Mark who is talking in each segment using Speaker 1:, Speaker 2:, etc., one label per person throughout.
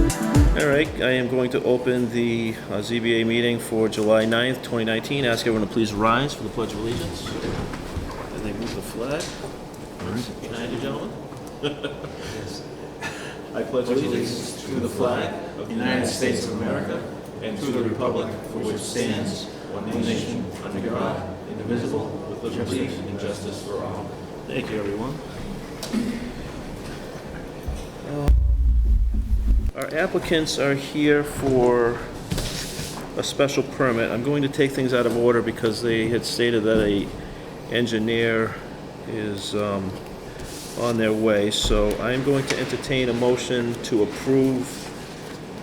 Speaker 1: All right, I am going to open the uh, ZBA meeting for July 9th, 2019. Ask everyone to please rise for the Pledge of Allegiance. As they move the flag. Can I, do, gentlemen? I pledge allegiance to the flag of the United States of America and to the republic for which stands one nation under God, indivisible, with liberty and justice for all. Thank you, everyone. Um, Our applicants are here for a special permit. I'm going to take things out of order because they had stated that a engineer is um, on their way. So I'm going to entertain a motion to approve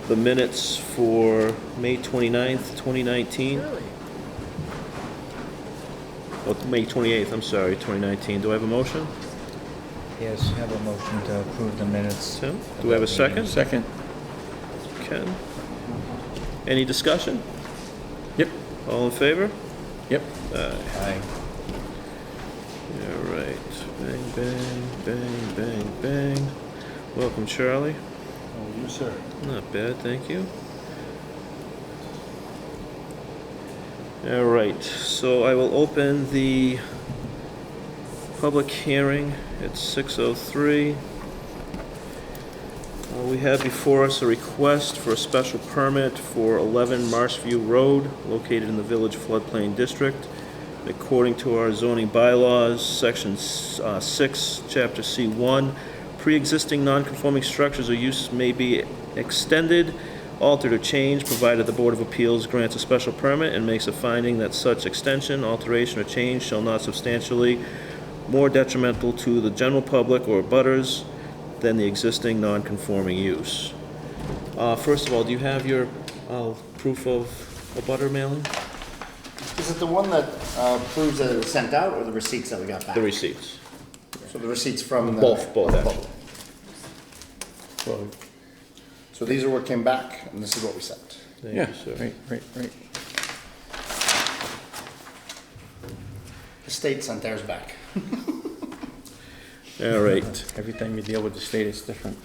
Speaker 1: the minutes for May 29th, 2019. Oh, May 28th, I'm sorry, 2019. Do I have a motion?
Speaker 2: Yes, have a motion to approve the minutes.
Speaker 1: Tim, do we have a second?
Speaker 3: Second.
Speaker 1: Ken? Any discussion?
Speaker 3: Yep,
Speaker 1: All in favor?
Speaker 3: yep.
Speaker 2: Aye.
Speaker 1: All right. Bang, bang, bang, bang, bang. Welcome, Charlie.
Speaker 3: Oh, you, sir.
Speaker 1: Not bad, thank you. All right, so I will open the public hearing at 6:03. Uh, We have before us a request for a special permit for 11 Marshview Road, located in the Village Floodplain District. According to our zoning bylaws, Section s- uh, 6, Chapter C1, pre-existing non-conforming structures or use may be extended, altered, or changed, provided the Board of Appeals grants a special permit and makes a finding that such extension, alteration, or change shall not substantially more detrimental to the general public or butters than the existing non-conforming use. Uh, First of all, do you have your uh, proof of a butter mailing?
Speaker 4: Is it the one that uh, proves that it was sent out, or the receipts that we got back?
Speaker 1: The receipts?
Speaker 4: So the receipts from the.
Speaker 1: Both, both, actually.
Speaker 4: So these are what came back, and this is what we sent.
Speaker 1: Thank
Speaker 3: Yeah,
Speaker 1: you, sir.
Speaker 3: right, right, right.
Speaker 4: The state sent theirs back.
Speaker 1: All right.
Speaker 3: Every time you deal with the state, it's different.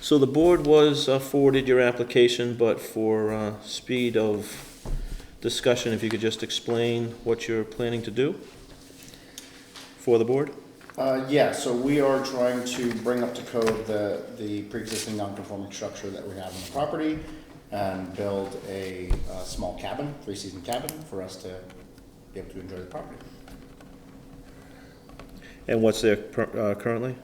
Speaker 1: So the board was uh, forwarded your application, but for uh, speed of discussion, if you could just explain what you're planning to do for the board?
Speaker 4: Uh, yeah, so we are trying to bring up to code the, the pre-existing non-conforming structure that we have on the property and build a, uh small cabin, three-season cabin, for us to be able to enjoy the property.
Speaker 1: And what's there per- uh, currently?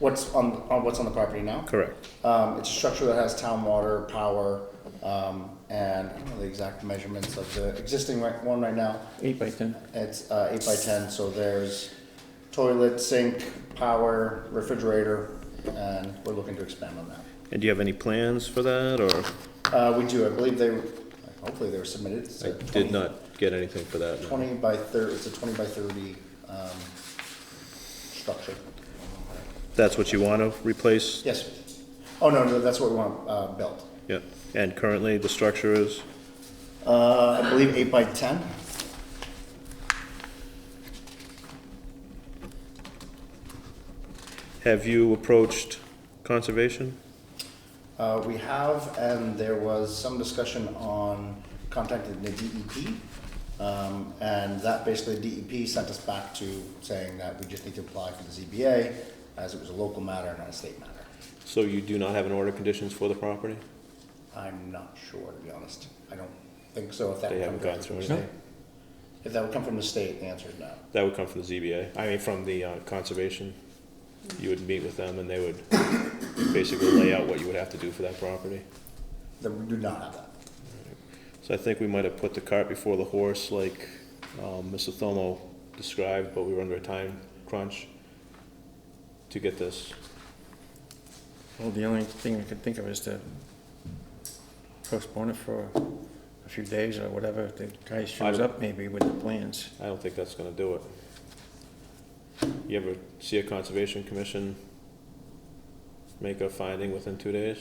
Speaker 4: What's on, on, what's on the property now?
Speaker 1: Correct.
Speaker 4: Um, it's a structure that has town water, power, um, and I don't know the exact measurements of the existing right- one right now.
Speaker 3: Eight by ten.
Speaker 4: It's, uh, eight by ten, so there's toilet, sink, power, refrigerator, and we're looking to expand on that.
Speaker 1: And do you have any plans for that, or
Speaker 4: Uh, we do, I believe they, were- hopefully they were submitted. It's
Speaker 1: I
Speaker 4: a
Speaker 1: did
Speaker 4: 20
Speaker 1: not get anything for that? no.
Speaker 4: Twenty by thirty, it's a twenty by thirty, um, structure.
Speaker 1: That's what you want to replace?
Speaker 4: Yes. Oh, no, no, that's what we want, uh, built.
Speaker 1: Yeah. And currently, the structure is?
Speaker 4: Uh, I believe eight by ten.
Speaker 1: Have you approached conservation?
Speaker 4: Uh, we have, and there was some discussion on contacting the DEP. Um, and that basically DEP sent us back to saying that we just need to apply for the ZBA as it was a local matter, not a state matter.
Speaker 1: So you do not have an order of conditions for the property?
Speaker 4: I'm not sure, to be honest. I don't think so if that
Speaker 1: They
Speaker 4: would come
Speaker 1: haven't gone
Speaker 4: from
Speaker 1: through
Speaker 4: the
Speaker 1: anything?
Speaker 4: state. If that would come from the state, the answer is no.
Speaker 1: That would come from the ZBA, I mean, from the uh, conservation. You would meet with them and they would basically lay out what you would have to do for that property.
Speaker 4: Then we do not have that.
Speaker 1: So I think we might have put the cart before the horse like um, Mr. Thomo described, but we were under a time crunch to get this.
Speaker 3: Well, the only thing I could think of is to postpone it for a few days or whatever. If The guy shows up maybe with the plans.
Speaker 1: I don't think that's gonna do it. You ever see a conservation commission make a finding within two days?